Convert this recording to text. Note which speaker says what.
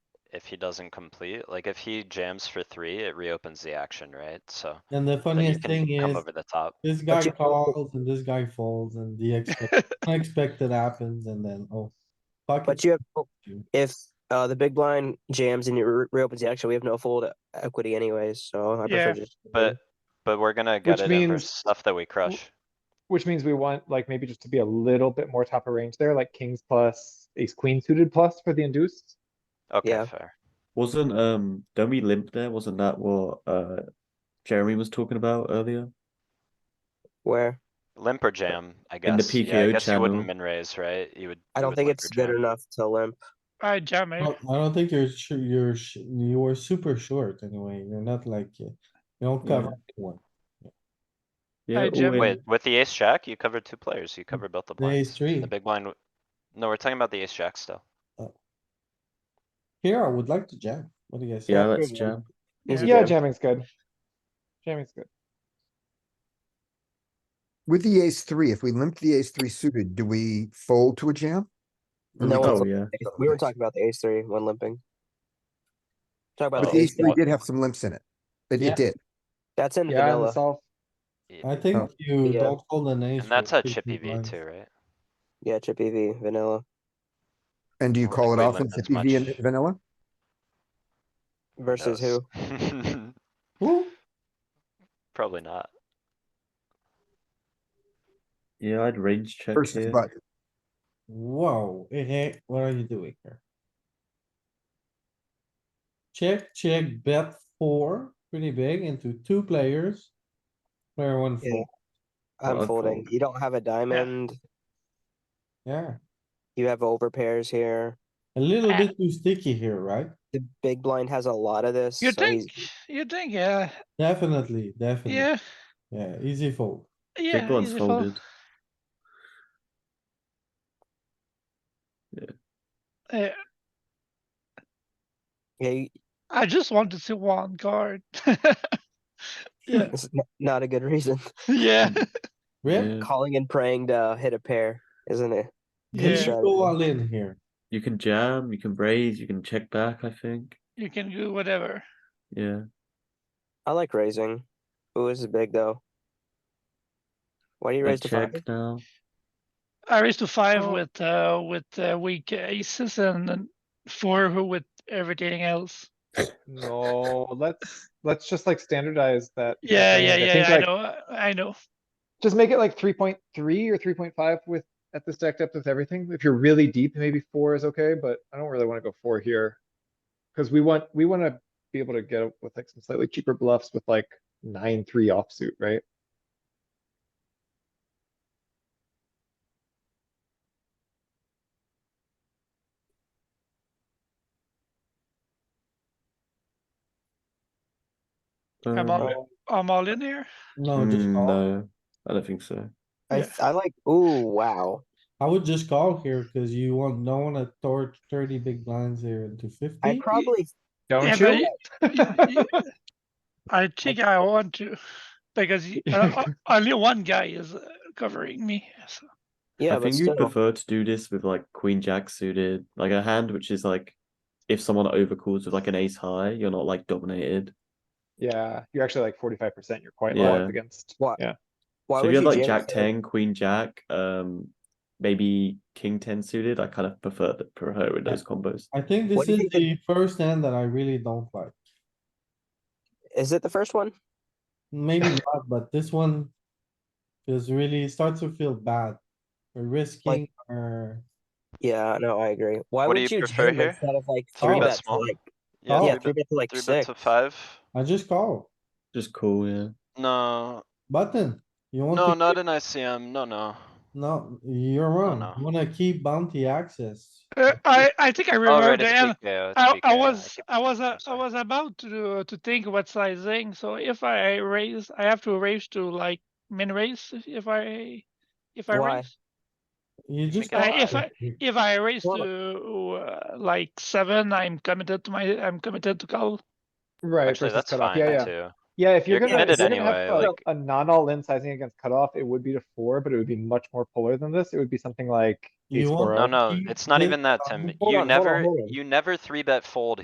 Speaker 1: if he doesn't complete, like if he jams for three, it reopens the action, right? So
Speaker 2: And the
Speaker 1: then you
Speaker 2: funniest
Speaker 1: can
Speaker 2: thing
Speaker 1: come
Speaker 2: is,
Speaker 1: over the top.
Speaker 2: this guy
Speaker 3: you-
Speaker 2: calls and this guy folds and the expect- unexpected happens and then, oh. fuck
Speaker 3: But
Speaker 2: it.
Speaker 3: you have, if uh, the big blind jams and it re- reopens the action, we have no fold equity anyways, so I
Speaker 4: Yeah.
Speaker 3: prefer just.
Speaker 1: But, but we're gonna get
Speaker 4: Which
Speaker 1: it in for
Speaker 4: means-
Speaker 1: stuff that we crush.
Speaker 4: Which means we want like maybe just to be a little bit more top of range there, like kings plus, ace queen suited plus for the induced.
Speaker 1: Okay,
Speaker 3: yeah.
Speaker 1: fair.
Speaker 5: Wasn't um don't we limp there? Wasn't that what uh Jeremy was talking about earlier?
Speaker 3: Where?
Speaker 1: Limp or jam, I guess.
Speaker 5: In the
Speaker 1: Yeah, I
Speaker 5: PKO
Speaker 1: guess you wouldn't
Speaker 5: channel.
Speaker 1: min raise, right? You would.
Speaker 3: I
Speaker 1: you
Speaker 3: don't
Speaker 1: would
Speaker 3: think
Speaker 1: limp
Speaker 3: it's
Speaker 1: or
Speaker 3: good
Speaker 1: jam.
Speaker 3: enough to limp.
Speaker 6: I jam
Speaker 2: I
Speaker 4: Oh,
Speaker 6: eight.
Speaker 2: don't- I don't think you're sure, you're, sh- you were super short anyway, you're not like, uh, you don't
Speaker 5: Yeah.
Speaker 2: cover one.
Speaker 5: Yeah,
Speaker 6: Hey,
Speaker 5: all
Speaker 6: Jim.
Speaker 5: in.
Speaker 1: Wait, with the ace jack, you covered two players. You covered both the
Speaker 2: The
Speaker 1: blinds.
Speaker 2: ace three,
Speaker 1: The big blind. w- No, we're talking about the ace jack still.
Speaker 2: here I would like to jam, what do you guys? say?
Speaker 5: Yeah, let's jam.
Speaker 3: Easy
Speaker 4: Yeah,
Speaker 3: jam.
Speaker 4: jamming's good. Jamming's good.
Speaker 7: With the ace three, if we limp the ace three suited, do we fold to a jam? Or
Speaker 3: No
Speaker 7: we
Speaker 3: one's
Speaker 5: Oh
Speaker 7: call-
Speaker 5: yeah.
Speaker 3: We were talking about the ace three when limping. Talk about
Speaker 7: But
Speaker 3: the
Speaker 7: the ace
Speaker 3: ace
Speaker 7: three
Speaker 3: jack.
Speaker 7: did have some limps in it. It,
Speaker 2: Yeah.
Speaker 7: it did.
Speaker 3: That's in
Speaker 4: Yeah, and
Speaker 3: vanilla.
Speaker 4: the solve.
Speaker 1: Yeah.
Speaker 2: I think you
Speaker 3: Oh. Yeah.
Speaker 2: don't fold an ace.
Speaker 1: And that's
Speaker 2: with
Speaker 1: a
Speaker 2: 50
Speaker 1: chippy V
Speaker 2: blinds.
Speaker 1: too, right?
Speaker 3: Yeah, chip EV, vanilla.
Speaker 7: And do you
Speaker 1: don't
Speaker 7: call
Speaker 1: think
Speaker 7: it
Speaker 1: we
Speaker 7: off in
Speaker 1: limp as
Speaker 7: fifty V and
Speaker 1: much.
Speaker 7: vanilla?
Speaker 3: Versus who?
Speaker 1: who?
Speaker 2: Woo.
Speaker 1: Probably not.
Speaker 5: Yeah, I'd range check
Speaker 7: Versus
Speaker 5: here.
Speaker 7: but
Speaker 2: Whoa, eh, eh, what are you doing here? Check, check, bet four, pretty big into two players. Player one,
Speaker 3: Yeah.
Speaker 2: fold.
Speaker 3: I'm
Speaker 5: I'd
Speaker 3: folding.
Speaker 5: fold.
Speaker 3: You don't have a diamond.
Speaker 2: yeah,
Speaker 3: You have overpairs here.
Speaker 2: a little bit too sticky here, right?
Speaker 3: The big blind has a lot of this.
Speaker 6: You
Speaker 3: so he's-
Speaker 6: think, you think, yeah,
Speaker 2: Definitely, definitely,
Speaker 6: yeah,
Speaker 2: yeah, easy fold.
Speaker 6: yeah.
Speaker 5: Big one's
Speaker 6: easy fold.
Speaker 5: folded.
Speaker 6: Yeah,
Speaker 3: Yeah, you-
Speaker 6: I just want to see one card. Yeah,
Speaker 3: it's n- not a good reason.
Speaker 6: yeah,
Speaker 2: Rip,
Speaker 5: Yeah.
Speaker 3: Calling and praying to hit a pair, isn't it?
Speaker 2: did you
Speaker 6: yeah.
Speaker 2: go all in here?
Speaker 5: You can jam, you can raise, you can check back, I think.
Speaker 6: You can do whatever.
Speaker 5: Yeah.
Speaker 3: I like raising. Ooh, this is big though. Why do you
Speaker 5: I
Speaker 3: raise to five?
Speaker 5: check now.
Speaker 6: I raised to five
Speaker 3: Oh.
Speaker 6: with, uh, with uh, weak aces and then four who with everything else.
Speaker 4: No, let's, let's just like standardize that. that
Speaker 6: Yeah,
Speaker 4: range.
Speaker 6: yeah, yeah,
Speaker 4: think,
Speaker 6: I
Speaker 4: like,
Speaker 6: know, I- I know.
Speaker 4: Just make it like three point three or three point five with, at this stack depth with everything. If you're really deep, maybe four is okay, but I don't really wanna go four here. Cause we want, we wanna be able to get with like some slightly cheaper bluffs with like nine, three offsuit, right?
Speaker 6: I'm
Speaker 5: Um,
Speaker 6: all, I'm all in here.
Speaker 3: Oh,
Speaker 2: No, just
Speaker 5: hmm,
Speaker 2: call.
Speaker 5: no, I don't think so.
Speaker 3: I,
Speaker 6: Yeah.
Speaker 3: th- I like, ooh, wow.
Speaker 2: I would just call here cuz you want, don't wanna torch thirty big blinds here into
Speaker 3: I
Speaker 2: fifty.
Speaker 3: probably,
Speaker 6: Yeah,
Speaker 4: Don't
Speaker 6: but
Speaker 4: you?
Speaker 6: y- y- I think I want to, because y- uh, o- only one guy is uh, covering me. so-
Speaker 3: yeah,
Speaker 5: I
Speaker 3: but
Speaker 5: think you'd
Speaker 3: still,
Speaker 5: prefer to do this with like queen jack suited, like a hand which is like if someone overcalls with like an ace high, you're not like dominated.
Speaker 4: Yeah, you're actually like forty-five percent, you're quite low
Speaker 5: Yeah.
Speaker 4: up against.
Speaker 3: Wha-
Speaker 4: Yeah,
Speaker 3: why
Speaker 5: so if
Speaker 3: would you
Speaker 5: you had like
Speaker 3: jam
Speaker 5: jack
Speaker 3: instead of-
Speaker 5: ten, queen jack, um, maybe king ten suited. I kind of prefer the prefer with
Speaker 2: Yeah.
Speaker 5: those combos.
Speaker 2: I think
Speaker 3: What
Speaker 2: this
Speaker 3: do you
Speaker 2: is
Speaker 3: think
Speaker 2: the first hand that I really don't like.
Speaker 3: Is it the first one?
Speaker 2: Maybe not, but this one is really starts to feel bad. We're risking our,
Speaker 3: Yeah, no, I agree. Why
Speaker 1: What do
Speaker 3: would
Speaker 1: you
Speaker 3: you
Speaker 1: prefer
Speaker 3: jam
Speaker 1: here?
Speaker 3: instead of like
Speaker 2: Three
Speaker 3: three
Speaker 2: bet
Speaker 3: bet to
Speaker 1: small?
Speaker 3: like,
Speaker 1: Yeah,
Speaker 2: Oh.
Speaker 3: yeah,
Speaker 1: three
Speaker 3: three
Speaker 1: bet,
Speaker 3: bet to like
Speaker 1: three bet
Speaker 3: six?
Speaker 1: to five.
Speaker 2: I just call.
Speaker 5: Just cool, yeah.
Speaker 1: No,
Speaker 2: Button, you want
Speaker 1: no,
Speaker 2: to,
Speaker 1: not an ICM. No, no.
Speaker 2: no, you're wrong. You
Speaker 1: no.
Speaker 2: wanna keep bounty access.
Speaker 6: Uh, I, I think I
Speaker 1: Oh,
Speaker 6: remember
Speaker 1: right,
Speaker 6: the
Speaker 1: it's
Speaker 6: end.
Speaker 1: PKO, it's
Speaker 6: I, I
Speaker 1: PKO,
Speaker 6: was,
Speaker 1: keep-
Speaker 6: I was,
Speaker 1: I'm
Speaker 6: uh, I
Speaker 1: sorry.
Speaker 6: was about to, to think what sizing, so if I raise, I have to raise to like min raise if- if I, if I
Speaker 3: Why?
Speaker 6: raise.
Speaker 2: You just.
Speaker 1: guess
Speaker 2: call.
Speaker 1: if
Speaker 6: I- If I raise
Speaker 3: Well,
Speaker 6: to uh, like seven, I'm committed to my, I'm committed to call.
Speaker 4: right.
Speaker 1: Actually,
Speaker 4: versus
Speaker 1: that's
Speaker 4: cutoff.
Speaker 1: fine
Speaker 4: Yeah, yeah.
Speaker 1: too.
Speaker 4: Yeah, if
Speaker 1: You're
Speaker 4: you're gonna, if
Speaker 1: committed
Speaker 4: you're gonna have
Speaker 1: anyway,
Speaker 4: a-
Speaker 1: like-
Speaker 4: a non-all-in sizing against cutoff, it would be to four, but it would be much more polar than this. It would be something like.
Speaker 2: You
Speaker 4: ace
Speaker 2: want-
Speaker 4: four oh.
Speaker 1: No,
Speaker 4: of.
Speaker 1: no,
Speaker 2: keep
Speaker 1: it's not
Speaker 2: this
Speaker 1: even that,
Speaker 2: on-
Speaker 1: Tim.
Speaker 2: hold
Speaker 1: You
Speaker 2: on, hold on,
Speaker 1: never,
Speaker 2: hold on.
Speaker 1: you never three bet fold